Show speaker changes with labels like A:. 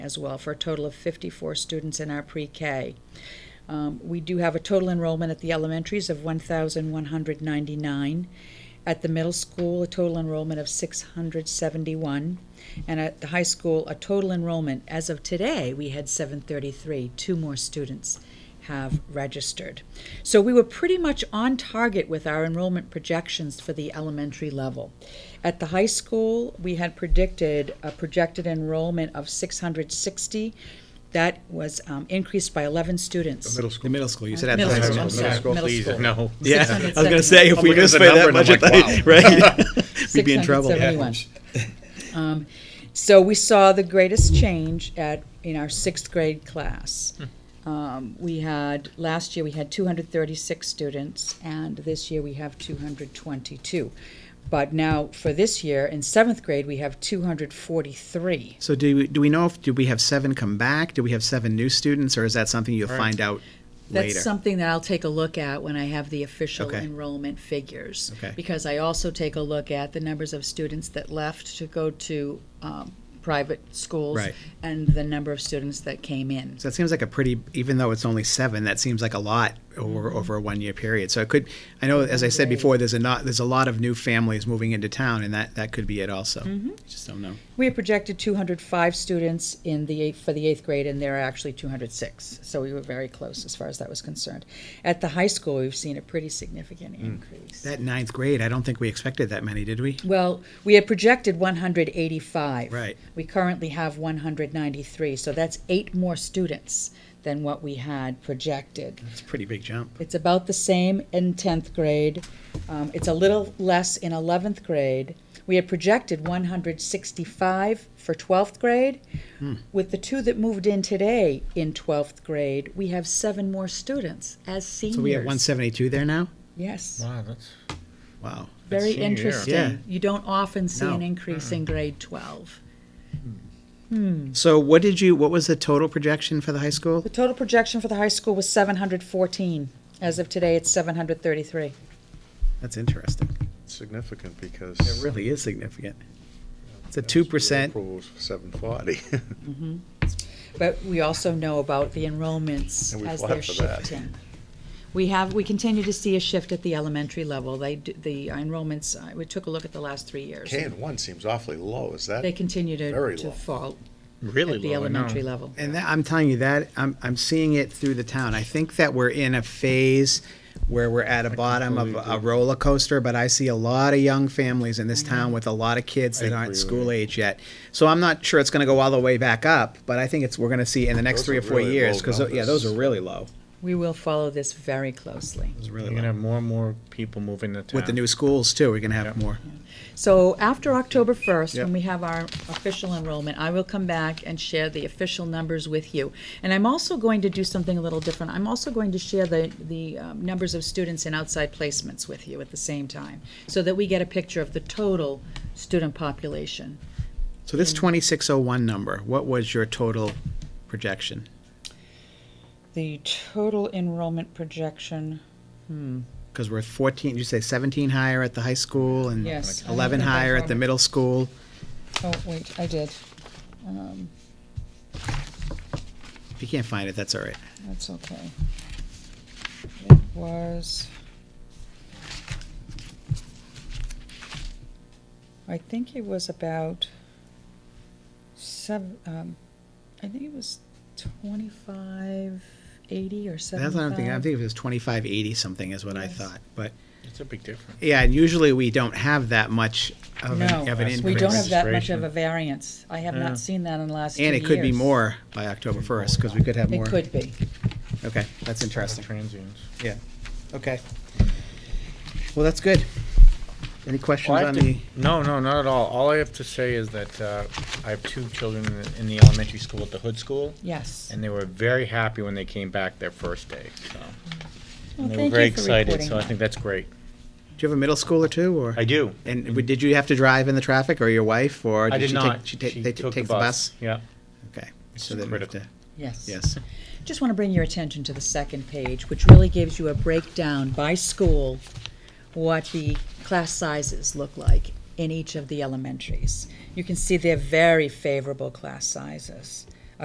A: as well, for a total of 54 students in our pre-K. Um, We do have a total enrollment at the elementaries of 1,199, at the middle school, a total enrollment of 671, and at the high school, a total enrollment, as of today, we had 733, two more students have registered. So we were pretty much on target with our enrollment projections for the elementary level. At the high school, we had predicted a projected enrollment of 660. That was um, increased by 11 students.
B: Middle school.
C: The middle school, you said at the
A: Middle
C: high
A: school,
C: school.
A: I'm
B: school.
A: sorry,
B: Middle
A: middle
B: please,
A: school.
B: no.
C: Yeah, I was gonna say, if we
B: I'm looking at the
C: misread that
B: number
C: much, I
B: and I'm
C: thought, right? We'd be in trouble.
A: 671. Um, So we saw the greatest change at, in our sixth grade class. Um, We had, last year, we had 236 students, and this year we have 222. But now, for this year, in seventh grade, we have 243.
C: So do, we- do we know if, do we have seven come back? Do we have seven new students, or is that something you'll find out later?
A: That's something that I'll take a look at when I have the official
C: Okay.
A: enrollment figures.
C: Okay.
A: Because I also take a look at the numbers of students that left to go to um, private schools.
C: Right.
A: And the number of students that came in.
C: So that seems like a pretty, even though it's only seven, that seems like a lot over, over a one-year period. So it could, I know, as I said
A: Mm-hmm. Right.
C: before, there's a not, there's a lot of new families moving into town, and that, that could be it also.
A: Mm-hmm.
C: Just don't know.
A: We had projected 205 students in the eighth, for the eighth grade, and there are actually 206. So we were very close as far as that was concerned. At the high school, we've seen a pretty significant
C: Hmm.
A: increase.
C: That ninth grade, I don't think we expected that many, did we?
A: Well, we had projected 185.
C: Right.
A: We currently have 193, so that's eight more students than what we had projected.
C: It's a pretty big jump.
A: It's about the same in 10th grade. Um, It's a little less in 11th grade. We had projected 165 for 12th grade.
C: Hmm.
A: With the two that moved in today in 12th grade, we have seven more students as seniors.
C: So we have one seventy-two there now?
A: Yes,
B: Wow, that's.
C: Wow.
A: very
B: senior year.
C: Yeah.
A: interesting. You don't often see an
C: No.
A: increase in grade 12.
C: So what did you, what was the total projection for the high school?
A: The total projection for the high school was 714. As of today, it's 733.
C: That's interesting.
D: significant because.
C: It really is significant. It's a two percent.
D: Approvals for seven forty.
A: But we also know about the enrollments
D: And we
A: as
D: fought
A: they're
D: for that.
A: shifting. We have, we continue to see a shift at the elementary level. They, d- the enrollments, uh, we took a look at the last three years.
D: K and one seems awfully low, is that?
A: They continue to,
D: Very
A: to
D: low.
A: fall
B: Really
A: at the
B: low, I know.
A: elementary level.
C: And that, I'm telling you that, I'm, I'm seeing it through the town. I think that we're in a phase where we're at a bottom of a roller coaster, but I see a lot of young families in
D: Mm-hmm.
C: this town with a lot of kids that aren't school age yet. So I'm not sure it's gonna go all the way back up, but I think it's, we're gonna see in the next
D: Those
C: three
D: are
C: or four
D: really
C: years,
D: low
C: cause, tho- yeah, those are
D: numbers.
C: really low.
A: We will follow this very closely.
C: Those are
B: You're
C: really
B: gonna
C: low.
B: have more and more people moving to town.
C: With the new schools too, we're gonna have more.
A: So after October 1st,
C: Yep.
A: when we have our official enrollment, I will come back and share the official numbers with you. And I'm also going to do something a little different. I'm also going to share the, the um, numbers of students in outside placements with you at the same time, so that we get a picture of the total student population.
C: So this twenty-six oh one number, what was your total projection?
A: The total enrollment projection,
C: Because we're 14, you say 17 higher at the high school and
A: Yes.
C: 11
A: I have
C: higher
A: that
C: at the
A: from-
C: middle school.
A: oh, wait, I did. Um,
C: If you can't find it, that's all right.
A: That's okay. It was. I think it was about seven, um, I think it was twenty-five eighty or
C: That's
A: seventy-five.
C: what I'm thinking. I'm thinking it was 2580 something is what I
A: Yes.
C: thought. But,
B: It's a big difference.
C: yeah, and usually we don't have that much of an,
A: No,
C: of an
B: Yes,
A: we don't have that much
C: increase.
A: of
B: Registration.
A: a variance. I have
B: Yeah.
A: not seen that in the last two
C: And it could be
A: years.
C: more by October 1st, because we could have more.
A: It could be.
C: Okay, that's interesting.
B: Transients.
C: Yeah, okay. Well, that's good. Any questions
B: Well, I
C: on
B: have to-
C: the,
B: No, no, not at all. All I have to say is that uh, I have two children in the- in the elementary school at the Hood School,
A: Yes.
B: and they were very happy when they came back their first day, so.
A: Well,
B: and they
A: thank
B: were
A: you
B: very
A: for
B: excited,
A: reporting
B: so I
A: that.
B: think that's great.
C: do you have a middle school or two, or?
B: I do.
C: And w- did you have to drive in the traffic, or your wife, or?
B: I did
C: she take-
B: not.
C: She ta-
B: She
C: they t-
B: took
C: take the bus?
B: Yeah.
C: Okay.
B: It's
C: So then we have
B: critical.
C: to-
A: Yes.
C: Yes.
A: Just want to bring your attention to the second page, which really gives you a breakdown by school, what the class sizes look like in each of the elementaries. You can see they're very favorable class sizes.